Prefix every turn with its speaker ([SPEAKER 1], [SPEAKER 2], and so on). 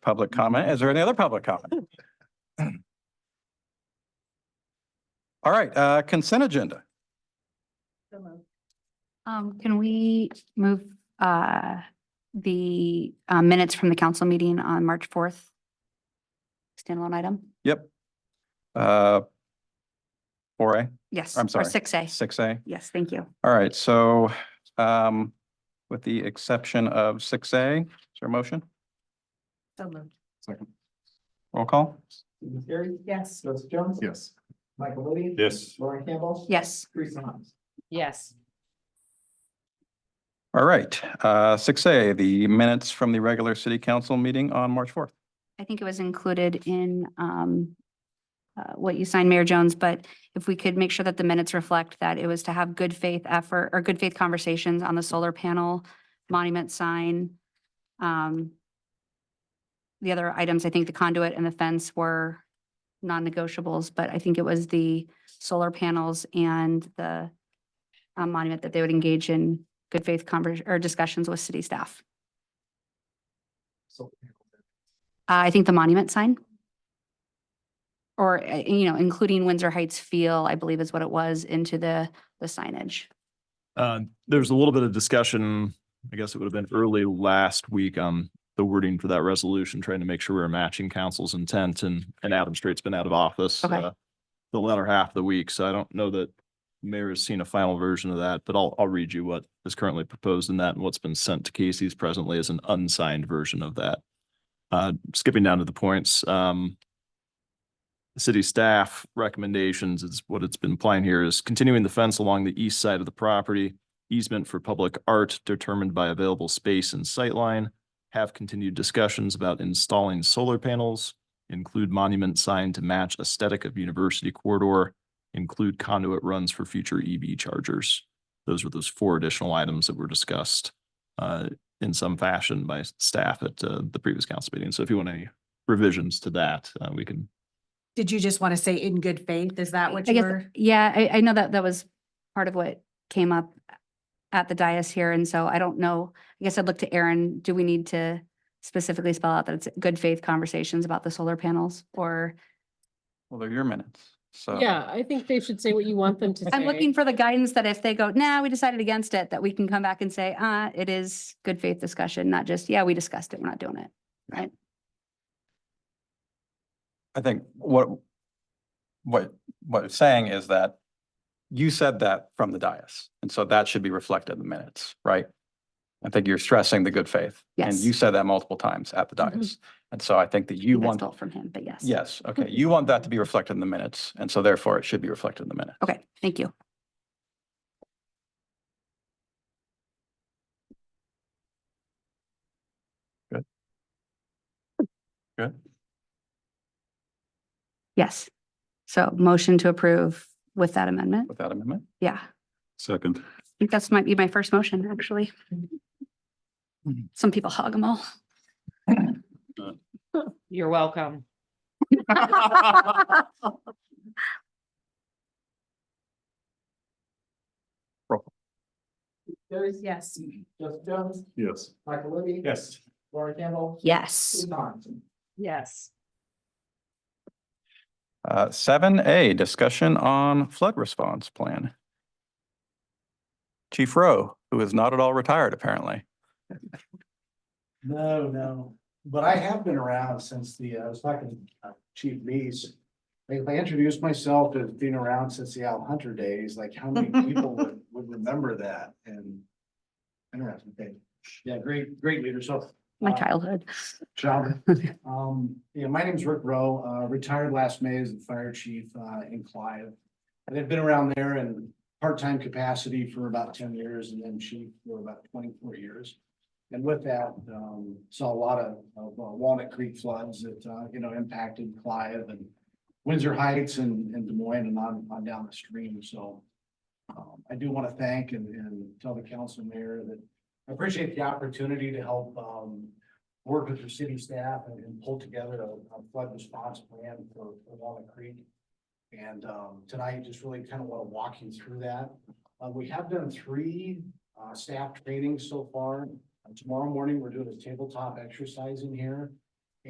[SPEAKER 1] public comment. Is there any other public comment? All right, uh, consent agenda.
[SPEAKER 2] Um, can we move, uh, the, uh, minutes from the council meeting on March fourth? Standalone item?
[SPEAKER 1] Yep. Uh, four A,
[SPEAKER 2] Yes.
[SPEAKER 1] I'm sorry.
[SPEAKER 2] Or six A.
[SPEAKER 1] six A.
[SPEAKER 2] Yes, thank you.
[SPEAKER 1] All right, so um, with the exception of six A, is there a motion?
[SPEAKER 3] So moved.
[SPEAKER 1] Second. Roll call?
[SPEAKER 4] Stephen Terry.
[SPEAKER 3] Yes.
[SPEAKER 4] Joseph Jones.
[SPEAKER 5] Yes.
[SPEAKER 4] Michael Libby.
[SPEAKER 5] Yes.
[SPEAKER 4] Lauren Campbell.
[SPEAKER 2] Yes.
[SPEAKER 4] Teresa Harms.
[SPEAKER 3] Yes.
[SPEAKER 1] All right, uh, six A, the minutes from the regular city council meeting on March fourth.
[SPEAKER 2] I think it was included in, um, uh, what you signed, Mayor Jones, but if we could make sure that the minutes reflect that it was to have good faith effort or good faith conversations on the solar panel monument sign. Um, the other items, I think the conduit and the fence were non-negotiables, but I think it was the solar panels and the uh, monument that they would engage in good faith conver, or discussions with city staff.
[SPEAKER 4] So,
[SPEAKER 2] Uh, I think the monument sign. Or, uh, you know, including Windsor Heights feel, I believe is what it was, into the, the signage.
[SPEAKER 5] Uh, there was a little bit of discussion, I guess it would have been early last week on the wording for that resolution, trying to make sure we're matching council's intent and, and Adam Straight's been out of office.
[SPEAKER 2] Okay.
[SPEAKER 5] uh, The latter half of the week, so I don't know that the mayor has seen a final version of that, but I'll, I'll read you what is currently proposed in that and what's been sent to Casey's presently is an unsigned version of that. Uh, skipping down to the points, um, city staff recommendations is what it's been applying here is continuing the fence along the east side of the property. Easement for public art determined by available space and sightline. Have continued discussions about installing solar panels. Include monument sign to match aesthetic of university corridor. Include conduit runs for future EV chargers. Those were those four additional items that were discussed uh, in some fashion by staff at uh, the previous council meeting. So if you want any revisions to that, uh, we can
[SPEAKER 3] Did you just want to say in good faith? Is that
[SPEAKER 2] I
[SPEAKER 3] what you
[SPEAKER 2] guess-
[SPEAKER 3] were?
[SPEAKER 2] Yeah, I, I know that that was part of what came up at the dais here. And so I don't know, I guess I'd look to Aaron, do we need to specifically spell out that it's good faith conversations about the solar panels? Or
[SPEAKER 1] Well, they're your minutes, so.
[SPEAKER 6] Yeah, I think they should say what you want them to say.
[SPEAKER 2] I'm looking for the guidance that if they go, nah, we decided against it, that we can come back and say, uh, it is good faith discussion, not just, yeah, we discussed it, we're not doing it.
[SPEAKER 1] I think what, what, what it's saying is that you said that from the dais, and so that should be reflected in the minutes, right? I think you're stressing the good faith. And you
[SPEAKER 2] Yes.
[SPEAKER 1] said that multiple times at the
[SPEAKER 6] Mhm.
[SPEAKER 1] dais. And so I think that
[SPEAKER 2] I
[SPEAKER 1] you
[SPEAKER 2] think I
[SPEAKER 1] want,
[SPEAKER 2] stole it From him, but yes.
[SPEAKER 1] yes, okay, you want that to be reflected in the minutes, and so therefore it should be reflected in the minute.
[SPEAKER 2] Okay, thank you.
[SPEAKER 1] Good. Good.
[SPEAKER 2] Yes. So motion to approve with that amendment.
[SPEAKER 1] Without amendment?
[SPEAKER 2] Yeah, I
[SPEAKER 5] Second.
[SPEAKER 2] think that's might be my first motion, actually. Some people hog them all.
[SPEAKER 6] You're welcome.
[SPEAKER 4] Terry.
[SPEAKER 3] Yes.
[SPEAKER 4] Joseph Jones.
[SPEAKER 5] Yes.
[SPEAKER 4] Michael Libby.
[SPEAKER 5] Yes.
[SPEAKER 4] Lauren Campbell.
[SPEAKER 2] Yes.
[SPEAKER 4] Teresa Harms.
[SPEAKER 6] Yes.
[SPEAKER 1] Uh, seven A, discussion on flood response plan. Chief Rowe, who is not at all retired apparently.
[SPEAKER 7] No, no, but I have been around since the, uh, I was talking to Chief Lees. Like, I introduced myself as being around since the Al Hunter days, like how many people would, would remember that and. Interesting thing. Yeah, great, great leader. So.
[SPEAKER 2] My
[SPEAKER 7] uh,
[SPEAKER 2] childhood.
[SPEAKER 7] John, um, yeah, my name's Rick Rowe, uh, retired last May as the fire chief, uh, in Clive. And I've been around there in part-time capacity for about ten years and then chief for about twenty-four years. And with that, um, saw a lot of, of uh, Walnut Creek floods that, uh, you know, impacted Clive and Windsor Heights and, and Des Moines and on, on down the stream, so. Um, I do want to thank and, and tell the council mayor that I appreciate the opportunity to help, um, work with your city staff and, and pull together a, a flood response plan for, for Walnut Creek. And, um, tonight, just really kind of want to walk you through that. Uh, we have done three, uh, staff trainings so far. Uh, Tomorrow morning, we're doing a tabletop exercise in here.